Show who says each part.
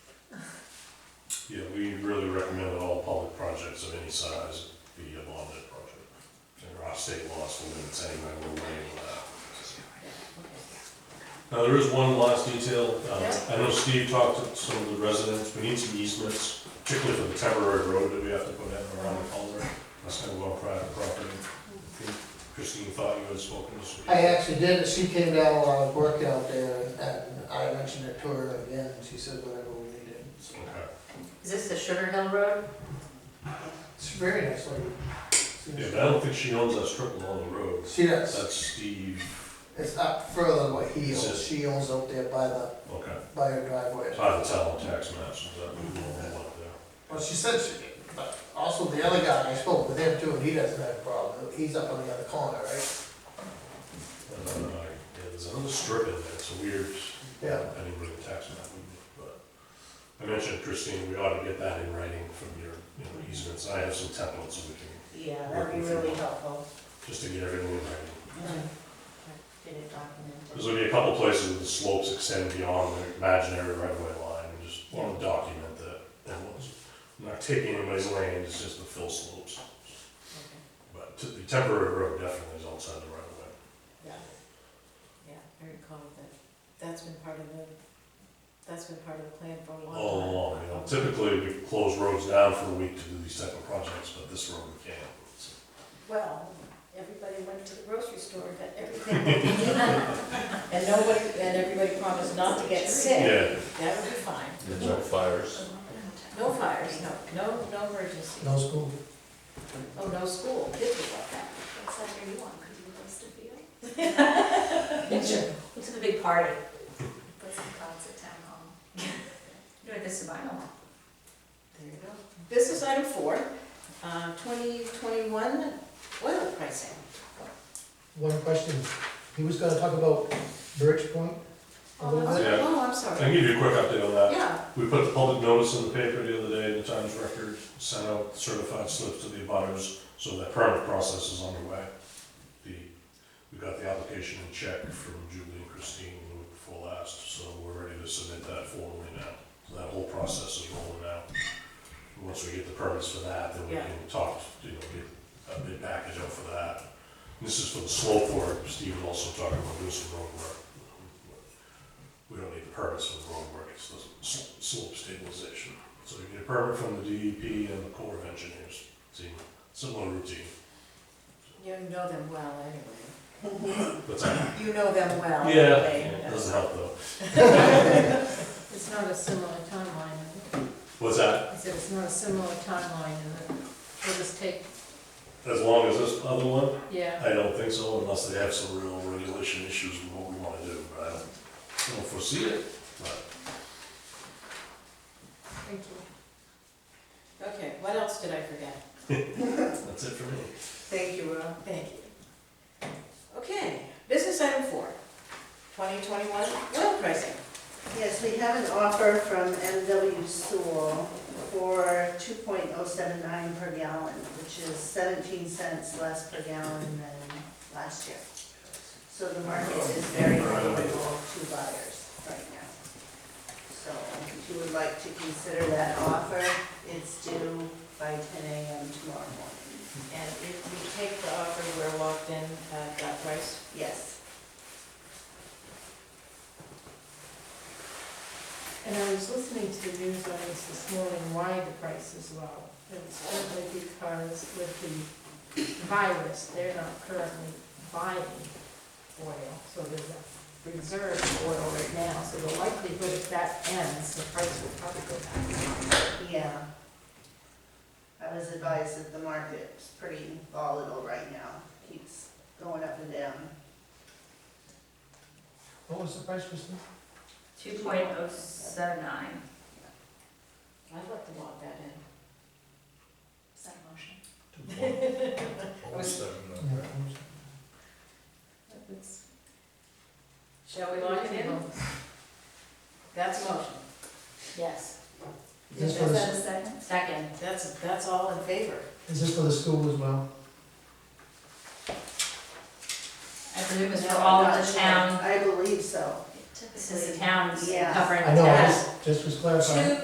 Speaker 1: Yeah, we really recommend that all public projects of any size be a bonded project. And our state laws will limit anyway, we're waiting on that. Now, there is one last detail. Um,
Speaker 2: Yeah.
Speaker 1: I know Steve talked to some of the residents, we need some easements, particularly for the temporary road that we have to put in around the culvert. That's gonna go on private property. I think Christine thought you had spoken this week.
Speaker 3: I actually did, it. she came down while I was working out there, and I mentioned it to her again, and she said whatever we needed. so.
Speaker 1: Okay.
Speaker 2: Is this the Sugar Hill Road?
Speaker 3: It's very nice lady.
Speaker 1: Yeah,
Speaker 3: She's-
Speaker 1: but I don't think she owns that strip along the road.
Speaker 3: She does,
Speaker 1: That's Steve,
Speaker 3: it's up further than what he
Speaker 1: Is it-
Speaker 3: owns, she owns out there by the,
Speaker 1: okay.
Speaker 3: by her driveway.
Speaker 1: By the town tax maps, is that what you want up there?
Speaker 3: Well, she said she, but also the other guy, I spoke with him too, and he doesn't have a problem, he's up on the other corner, right?
Speaker 1: I don't know, I- yeah, there's another strip in there, it's a weird,
Speaker 3: Yeah.
Speaker 1: I didn't really tax map, but I mentioned Christine, we ought to get that in writing from your, you know, easements, I have some templates so we can,
Speaker 2: Yeah,
Speaker 1: that'd be really
Speaker 2: helpful.
Speaker 1: just to get everything in writing.
Speaker 2: Get it documented.
Speaker 1: There's gonna be a couple places where the slopes extend beyond the imaginary right of way line, and just wanna document that, that was, I'm not taking anybody's land, it's just the fill slopes. But t- the temporary road definitely is outside the right of way.
Speaker 2: Yeah, yeah, I recall that, that's been part of the, that's been part of the plan for a long time.
Speaker 1: all along, Oh, you know, typically we close roads down for a week to do these type of projects, but this road we can't. So,
Speaker 4: Well, everybody went to the grocery store and got everything. they needed. And nobody, and everybody promised not to get sick.
Speaker 1: Yeah,
Speaker 4: That would be fine.
Speaker 5: There's no fires.
Speaker 4: No fires, no, no, no emergency.
Speaker 3: No school.
Speaker 4: Oh, no school, kids would love that.
Speaker 6: That's like where you want, could you host a field?
Speaker 2: It's a big party.
Speaker 6: Put some cots at town hall. Do it this vinyl.
Speaker 4: There you go. Business item four, uh, 2021 oil pricing.
Speaker 3: One question, he was gonna talk about Birch Point,
Speaker 4: Oh, that's-
Speaker 1: Yeah.
Speaker 4: Oh, I'm
Speaker 1: I
Speaker 4: sorry.
Speaker 1: can give you a quick update on that.
Speaker 4: Yeah,
Speaker 1: We put the public notice in the paper the other day, the Times Record, sent out certified slips to the abutters, so that permit process is underway. The, we got the application in check from Julie and Christine the week before last, so we're ready to submit that formally now. So that whole process is rolling out. And Once we get the permits for that, then we
Speaker 4: Yeah.
Speaker 1: can talk, you know, get a bid package out for that. This is for the slope work, Steve was also talking about doing some road work. We don't need the permits for the road work, it's the s- slope stabilization. So you get a permit from the DEP and the Corps of Engineers, it's a similar routine.
Speaker 4: you know them well anyway.
Speaker 1: But I-
Speaker 4: You know them well.
Speaker 1: yeah,
Speaker 4: anyway.
Speaker 1: it doesn't help though.
Speaker 2: It's not a similar timeline.
Speaker 1: What's that?
Speaker 2: I said it's not a similar timeline, and it'll just take,
Speaker 1: As long as this other one?
Speaker 2: yeah.
Speaker 1: I don't think so, unless they have some real regulation issues with what we wanna do, but I don't, I don't foresee it, but.
Speaker 2: Thank you.
Speaker 4: Okay, what else did I forget?
Speaker 1: That's it for me.
Speaker 4: Thank you, Will. Thank you. Okay, business item four, 2021 oil pricing.
Speaker 7: Yes, we have an offer from MW Sewell for two point oh seven nine per gallon, which is seventeen cents less per gallon than last year. So the market is very favorable to buyers right now. So if you would like to consider that offer, it's due by ten AM tomorrow morning.
Speaker 4: And if we take the offer, we're locked in at that price.
Speaker 7: Yes.
Speaker 2: And I was listening to the news on this this morning, why the price is low. And It's certainly because with the virus, they're not currently buying oil. So there's a reserve of oil right now, so the likelihood if that ends, the price will probably go back.
Speaker 7: Yeah. I was advised that the market's pretty volatile right now, keeps going up and down.
Speaker 3: what was the price, Kristen?
Speaker 6: Two point oh seven nine.
Speaker 4: I'd like to lock that in.
Speaker 6: Is that a motion?
Speaker 4: Shall we lock it in? That's a motion. Yes.
Speaker 3: This
Speaker 4: Is
Speaker 3: was-
Speaker 4: that
Speaker 6: Is that a second?
Speaker 4: Second, that's, that's all in favor.
Speaker 3: Is this for the school as well?
Speaker 6: I believe it's for
Speaker 7: No, I'm
Speaker 6: all
Speaker 7: not
Speaker 6: of the
Speaker 7: sure.
Speaker 6: town,
Speaker 7: I believe so.
Speaker 6: this is the town's
Speaker 7: Yeah.
Speaker 6: covering
Speaker 3: I know, I
Speaker 6: town.
Speaker 3: just, just was clarifying.
Speaker 4: Two